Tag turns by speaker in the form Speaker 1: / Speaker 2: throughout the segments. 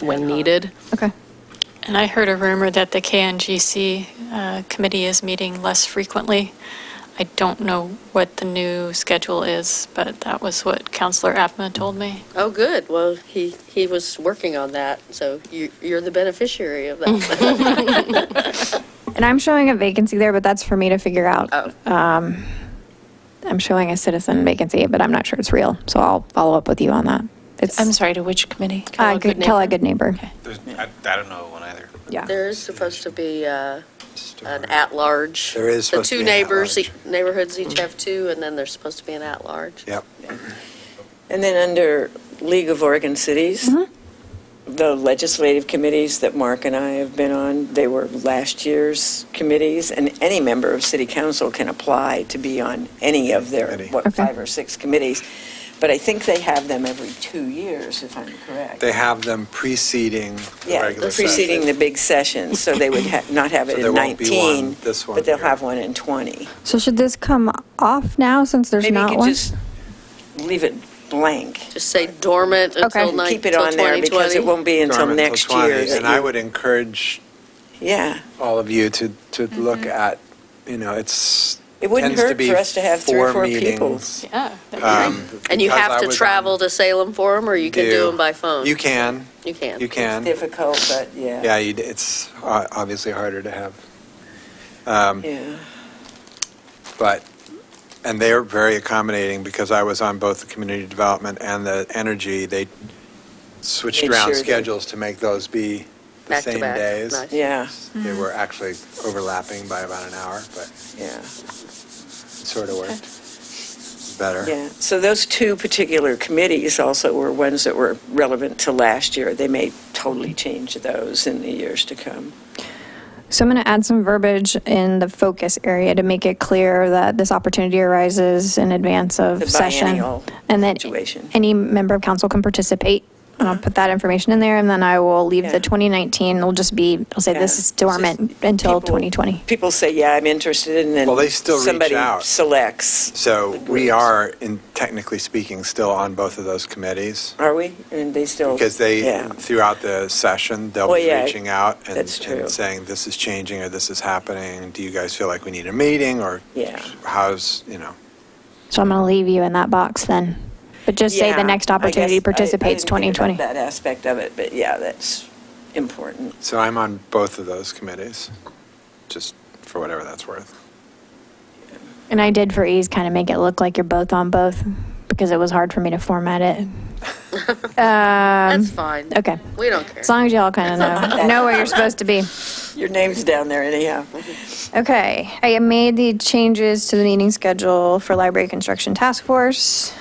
Speaker 1: when needed.
Speaker 2: Okay.
Speaker 3: And I heard a rumor that the KNGC uh, committee is meeting less frequently. I don't know what the new schedule is, but that was what Counselor Abma told me.
Speaker 1: Oh, good. Well, he, he was working on that, so you, you're the beneficiary of that.
Speaker 2: And I'm showing a vacancy there, but that's for me to figure out. Um,
Speaker 1: Oh.
Speaker 2: I'm showing a citizen vacancy, but I'm not sure it's real. So I'll follow up with you on that. It's
Speaker 4: I'm sorry, to which committee?
Speaker 2: Uh,
Speaker 1: Call a
Speaker 2: good,
Speaker 1: good
Speaker 2: call a
Speaker 1: neighbor.
Speaker 2: good neighbor.
Speaker 5: There's, I, I don't know one either.
Speaker 2: Yeah.
Speaker 1: There is supposed to be uh, an at-large.
Speaker 6: There is supposed to
Speaker 1: The
Speaker 6: be
Speaker 1: two
Speaker 6: an
Speaker 1: neighbors,
Speaker 6: at-large.
Speaker 1: e- neighborhoods each have two, and then there's supposed to be an at-large.
Speaker 6: Yep.
Speaker 7: And then under League of Oregon Cities,
Speaker 2: Mm-hmm.
Speaker 7: the legislative committees that Mark and I have been on, they were last year's committees, and any member of city council can apply to be on any of their,
Speaker 6: Any.
Speaker 7: what,
Speaker 2: Okay.
Speaker 7: five or six committees. But I think they have them every two years, if I'm correct.
Speaker 6: They have them preceding the
Speaker 7: Yeah,
Speaker 6: regular session.
Speaker 7: preceding the big session, so they would ha- not have
Speaker 6: So
Speaker 7: it
Speaker 6: there
Speaker 7: in
Speaker 6: won't be one
Speaker 7: 19,
Speaker 6: this one
Speaker 7: but they'll
Speaker 6: here.
Speaker 7: have one in 20.
Speaker 2: So should this come off now since there's
Speaker 7: Maybe you
Speaker 2: not
Speaker 7: could
Speaker 2: one?
Speaker 7: just leave it blank.
Speaker 1: Just say dormant until
Speaker 2: Okay.
Speaker 1: nine,
Speaker 7: Keep it
Speaker 1: until
Speaker 7: on there because it
Speaker 1: 2020.
Speaker 7: won't be until
Speaker 6: Dormant till
Speaker 7: next
Speaker 6: 20,
Speaker 7: year. that
Speaker 6: And I
Speaker 7: you-
Speaker 6: would encourage
Speaker 7: Yeah.
Speaker 6: all of you to, to
Speaker 1: Mm-hmm.
Speaker 6: look at, you know, it's.
Speaker 7: It wouldn't
Speaker 6: tends
Speaker 7: hurt
Speaker 6: be
Speaker 7: for us to have three or four people.
Speaker 6: meetings.
Speaker 3: Yeah. that'd be great.
Speaker 6: Um,
Speaker 1: And you
Speaker 6: because I
Speaker 1: have to
Speaker 6: was on-
Speaker 1: travel to Salem for them, or you can do
Speaker 6: Do.
Speaker 1: them by phone?
Speaker 6: You can,
Speaker 1: You can.
Speaker 6: you
Speaker 7: It's
Speaker 6: can.
Speaker 7: difficult, but yeah.
Speaker 6: Yeah, you d- it's o- obviously harder to have. Um,
Speaker 7: Yeah.
Speaker 6: But, and they're very accommodating because I was on both the community development and the energy. They switched
Speaker 7: Made sure
Speaker 6: around
Speaker 7: they-
Speaker 6: schedules to make those be the
Speaker 1: Back to
Speaker 6: same
Speaker 1: back.
Speaker 6: days.
Speaker 1: Nice.
Speaker 7: Yeah,
Speaker 6: They were actually overlapping by about an hour, but
Speaker 7: yeah,
Speaker 6: it sort of worked better.
Speaker 7: yeah. So those two particular committees also were ones that were relevant to last year. They may totally change those in the years to come.
Speaker 2: So I'm going to add some verbiage in the focus area to make it clear that this opportunity arises in advance
Speaker 7: The
Speaker 2: of session.
Speaker 7: biennial
Speaker 2: And that
Speaker 7: situation. Uh-huh.
Speaker 2: any member of council can participate. And I'll put that information in there and then I will leave
Speaker 7: Yeah.
Speaker 2: the 2019, it'll just be, I'll say
Speaker 7: Yeah.
Speaker 2: this is
Speaker 7: It's just
Speaker 2: dormant until
Speaker 7: people-
Speaker 2: 2020.
Speaker 7: People say, yeah, I'm interested, and then
Speaker 6: Well, they still reach
Speaker 7: Somebody
Speaker 6: out.
Speaker 7: selects.
Speaker 6: So
Speaker 7: the
Speaker 6: we
Speaker 7: groups.
Speaker 6: are, in, technically speaking, still on both of those committees.
Speaker 7: Are we? And they still.
Speaker 6: Because they,
Speaker 7: Yeah.
Speaker 6: throughout the session, they'll
Speaker 7: Well,
Speaker 6: be
Speaker 7: yeah,
Speaker 6: reaching out and
Speaker 7: that's true.
Speaker 6: and saying, this is changing, or this is happening, do you guys feel like we need a meeting, or
Speaker 7: Yeah.
Speaker 6: how's, you know?
Speaker 2: So I'm going to leave you in that box then. But just say
Speaker 7: Yeah,
Speaker 2: the next
Speaker 7: I
Speaker 2: opportunity
Speaker 7: guess I- I
Speaker 2: participates
Speaker 7: didn't think about
Speaker 2: 2020.
Speaker 7: That aspect of it, but yeah, that's important.
Speaker 6: So I'm on both of those committees, just for whatever that's worth.
Speaker 2: And I did for ease kind of make it look like you're both on both because it was hard for me to format it. Um,
Speaker 7: Um,
Speaker 1: That's fine.
Speaker 2: Okay.
Speaker 1: We don't care.
Speaker 2: As long as y'all kind of know, know where you're supposed to be.
Speaker 7: Your name's down there anyhow.
Speaker 2: Okay, I made the changes to the meeting schedule for Library Construction Task Force.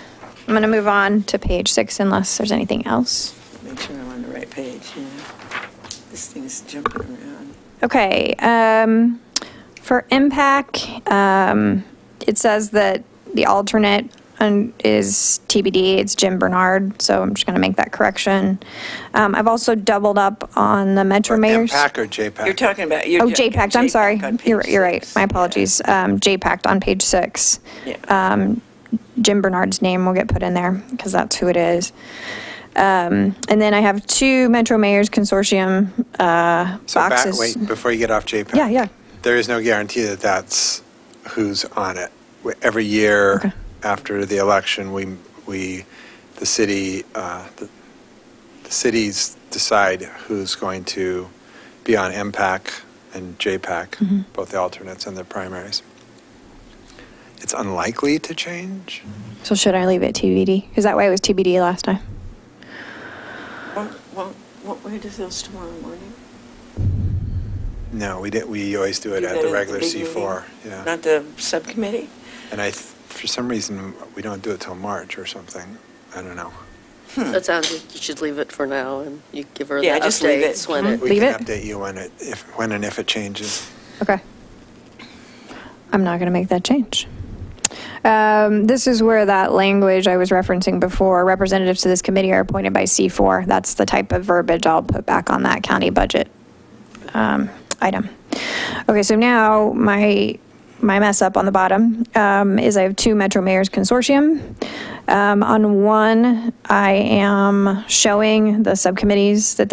Speaker 2: I'm going to move on to page six unless there's anything else.
Speaker 7: Make sure I'm on the right page, yeah. This thing's jumping around.
Speaker 2: Okay, um, for MPAC, um, it says that the alternate un- is TBD, it's Jim Bernard, so I'm just going to make that correction. Um, I've also doubled up on the Metro
Speaker 6: Or
Speaker 2: Mayor's.
Speaker 6: MPAC or JPAC?
Speaker 7: You're talking about.
Speaker 2: Oh, JPAC, I'm sorry. You're, you're right, my
Speaker 7: apologies.
Speaker 2: apologies. Um, JPAC on page six. um, Jim Bernard's name will get put in there because that's who it is. Um, and then I have two Metro Mayors Consortium uh,
Speaker 6: So back,
Speaker 2: boxes.
Speaker 6: wait, before you get off JPAC.
Speaker 2: Yeah, yeah.
Speaker 6: There is no guarantee that that's who's on it. We- Every year after the election, we, we, the city, uh, the the cities decide who's going to be on MPAC and
Speaker 2: Mm-hmm.
Speaker 6: JPAC, both the alternates and the primaries. It's unlikely to change.
Speaker 2: So should I leave it TBD? Because that way it was TBD last time.
Speaker 7: Well, what, where does those tomorrow morning?
Speaker 6: No, we did, we always do
Speaker 7: You
Speaker 6: it
Speaker 7: got
Speaker 6: at the regular
Speaker 7: big meeting?
Speaker 6: C4, yeah.
Speaker 7: Not the subcommittee?
Speaker 6: And I, th- for some reason, we don't do it till March or something. I don't know.
Speaker 7: Hmm.
Speaker 1: That sounds like you should leave it for now, and you give her the
Speaker 7: Yeah, just leave it.
Speaker 1: updates when it.
Speaker 6: We
Speaker 2: Mm. Leave
Speaker 6: can
Speaker 2: it?
Speaker 6: update you when it, if, when and if it changes.
Speaker 2: Okay. I'm not going to make that change. Um, this is where that language I was referencing before, representatives to this committee are appointed by C4. That's the type of verbiage I'll put back on that county budget um, item. Okay, so now my my mess up on the bottom, um, is I have two Metro Mayors Consortium. Um, on one, I am showing the subcommittees that